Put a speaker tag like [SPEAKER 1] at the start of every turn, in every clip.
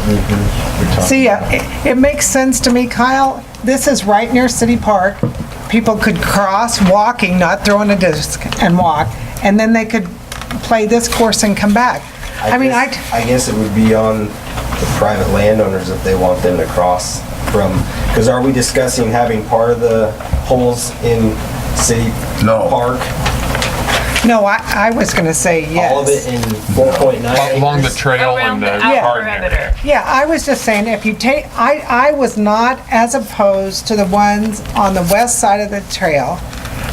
[SPEAKER 1] Mm-hmm.
[SPEAKER 2] See, uh, it, it makes sense to me, Kyle. This is right near City Park. People could cross walking, not throwing a disc and walk, and then they could play this course and come back. I mean, I,
[SPEAKER 1] guess- I guess it would be on the private landowners if they want them to cross from, because are we discussing having part of the holes in city
[SPEAKER 3] No.
[SPEAKER 1] park?
[SPEAKER 2] no, I, I was gonna say yes.
[SPEAKER 1] All of it in four point nine
[SPEAKER 4] Along the
[SPEAKER 1] acres?
[SPEAKER 4] trail
[SPEAKER 5] Around
[SPEAKER 4] and the
[SPEAKER 5] the
[SPEAKER 2] Yeah.
[SPEAKER 5] outer
[SPEAKER 4] garden area.
[SPEAKER 5] perimeter.
[SPEAKER 2] Yeah, I was just saying, if you take, I, I was not as opposed to the ones on the west side of the trail,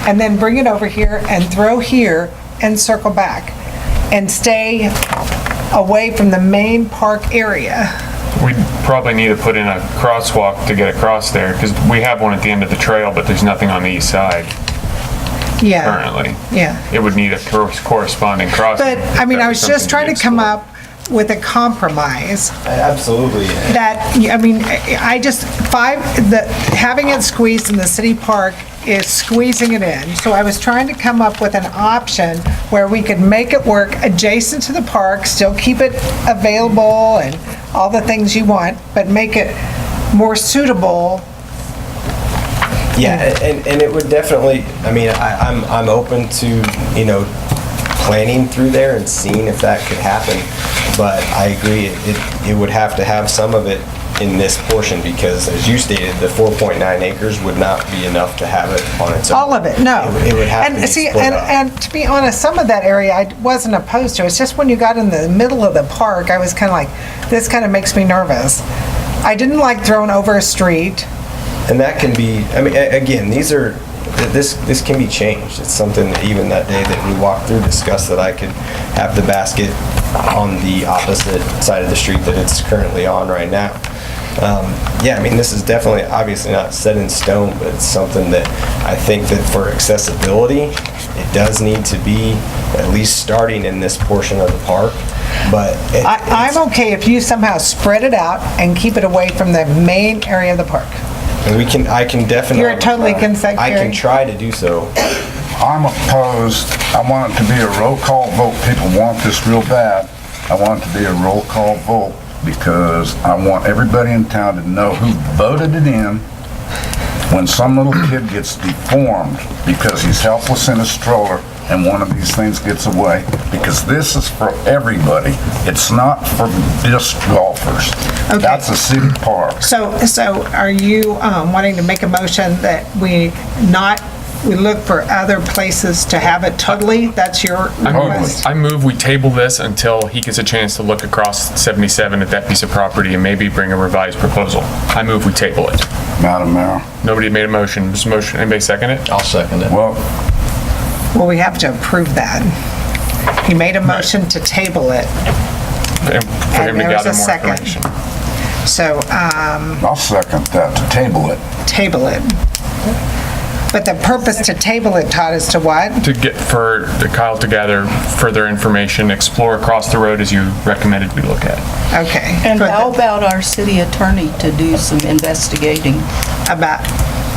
[SPEAKER 2] and then bring it over here and throw here and circle back, and stay away from the main park area.
[SPEAKER 4] We probably need to put in a crosswalk to get across there, because we have one at the end of the trail, but there's nothing on the east side
[SPEAKER 2] Yeah,
[SPEAKER 4] currently.
[SPEAKER 2] yeah.
[SPEAKER 4] It would need a cor- corresponding crossing.
[SPEAKER 2] But, I mean, I was
[SPEAKER 4] That'd be
[SPEAKER 2] just
[SPEAKER 4] something
[SPEAKER 2] trying to
[SPEAKER 4] we'd
[SPEAKER 2] come
[SPEAKER 4] explore.
[SPEAKER 2] up with a compromise
[SPEAKER 1] Absolutely.
[SPEAKER 2] that, I mean, I just, five, the, having it squeezed in the city park is squeezing it in. So I was trying to come up with an option where we could make it work adjacent to the park, still keep it available and all the things you want, but make it more suitable.
[SPEAKER 1] Yeah, a- and, and it would definitely, I mean, I, I'm, I'm open to, you know, planning through there and seeing if that could happen. But I agree, it- it, it would have to have some of it in this portion because as you stated, the four point nine acres would not be enough to have it on its own.
[SPEAKER 2] All of it, no.
[SPEAKER 1] It would- It would have to be
[SPEAKER 2] And see,
[SPEAKER 1] split
[SPEAKER 2] and,
[SPEAKER 1] up.
[SPEAKER 2] and to be honest, some of that area I wasn't opposed to. It's just when you got in the middle of the park, I was kind of like, this kind of makes me nervous. I didn't like throwing over a street.
[SPEAKER 1] And that can be, I mean, a- again, these are, th- this, this can be changed. It's something that even that day that we walked through discussed that I could have the basket on the opposite side of the street that it's currently on right now. Um, Yeah, I mean, this is definitely, obviously not set in stone, but it's something that I think that for accessibility, it does need to be at least starting in this portion of the park, but. it-
[SPEAKER 2] I, I'm okay if you somehow spread it out and keep it away from the main area of the park.
[SPEAKER 1] And we can, I can definitely.
[SPEAKER 2] You're totally consent,
[SPEAKER 1] I
[SPEAKER 2] Gary.
[SPEAKER 1] can try to do so.
[SPEAKER 3] I'm opposed, I want it to be a roll call vote, people want this real bad. I want it to be a roll call vote because I want everybody in town to know who voted it in when some little kid gets deformed because he's helpless in a stroller and one of these things gets away, because this is for everybody. It's not for disc golfers.
[SPEAKER 2] Okay.
[SPEAKER 3] That's a city park.
[SPEAKER 2] So, so are you um, wanting to make a motion that we not, we look for other places to have it totally? That's your
[SPEAKER 4] I
[SPEAKER 2] request?
[SPEAKER 4] move, I move we table this until he gets a chance to look across 77 at that piece of property and maybe bring a revised proposal. I move we table it.
[SPEAKER 3] Madam Mayor,
[SPEAKER 4] Nobody made a motion. Just motion, anybody second it?
[SPEAKER 6] I'll second it.
[SPEAKER 3] well,
[SPEAKER 2] Well, we have to approve that. He made a motion to table it, And
[SPEAKER 4] And For him to
[SPEAKER 2] Uh, there was
[SPEAKER 4] gather
[SPEAKER 2] a
[SPEAKER 4] more
[SPEAKER 2] second.
[SPEAKER 4] information.
[SPEAKER 2] so um,
[SPEAKER 3] I'll second that, to table it.
[SPEAKER 2] table it. But the purpose to table it, Todd, is to what?
[SPEAKER 4] To get for Kyle to gather further information, explore across the road as you recommended we look at.
[SPEAKER 2] Okay.
[SPEAKER 7] And
[SPEAKER 2] for the-
[SPEAKER 7] how about our city attorney to do some investigating?
[SPEAKER 2] about,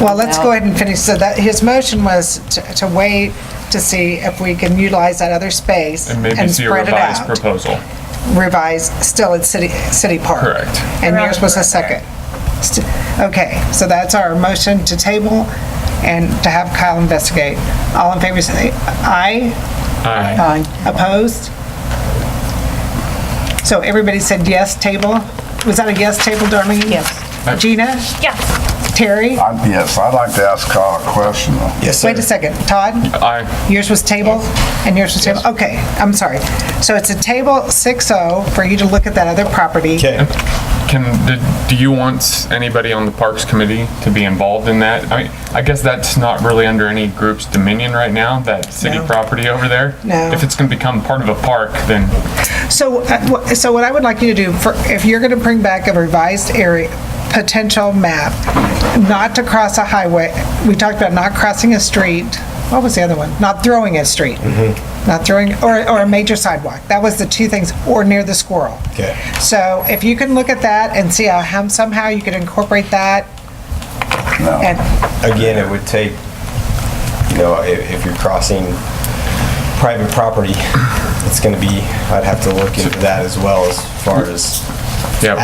[SPEAKER 2] well, let's go ahead and finish. So that, his motion was to to wait to see if we can utilize that other space
[SPEAKER 4] And
[SPEAKER 2] and
[SPEAKER 4] maybe see a
[SPEAKER 2] spread it
[SPEAKER 4] revised
[SPEAKER 2] out.
[SPEAKER 4] proposal.
[SPEAKER 2] Revised, still at City, City Park.
[SPEAKER 4] Correct.
[SPEAKER 2] And yours was a second. St- Okay, so that's our motion to table and to have Kyle investigate. All in favor, say aye.
[SPEAKER 4] Aye.
[SPEAKER 7] Aye.
[SPEAKER 2] Opposed? So everybody said yes, table? Was that a yes, table, Darlene?
[SPEAKER 7] Yes.
[SPEAKER 2] Gina?
[SPEAKER 5] Yes.
[SPEAKER 2] Terry?
[SPEAKER 3] I- Yes, I'd like to ask Kyle a question. though.
[SPEAKER 1] Yes,
[SPEAKER 2] Wait a second, Todd?
[SPEAKER 4] Aye.
[SPEAKER 2] Yours was table, and yours was table, okay, I'm sorry. So it's a table 6-0 for you to look at that other property.
[SPEAKER 1] Okay.
[SPEAKER 4] Can, did- do you want anybody on the Parks Committee to be involved in that? I mean, I guess that's not really under any group's dominion right now, that city
[SPEAKER 2] No.
[SPEAKER 4] property over there.
[SPEAKER 2] No.
[SPEAKER 4] If it's going to become part of a park, then
[SPEAKER 2] So, uh, wha- so what I would like you to do, for- if you're going to bring back a revised area, potential map, not to cross a highway, we talked about not crossing a street, what was the other one? Not throwing a street. Not throwing, or, or a major sidewalk. That was the two things, or near the squirrel.
[SPEAKER 1] Okay.
[SPEAKER 2] So if you can look at that and see how- how somehow you could incorporate that,
[SPEAKER 3] No.
[SPEAKER 2] and
[SPEAKER 1] again, it would take, you know, i- if, if you're crossing private property, it's gonna be, I'd have to look into that as well as far as
[SPEAKER 4] yeah,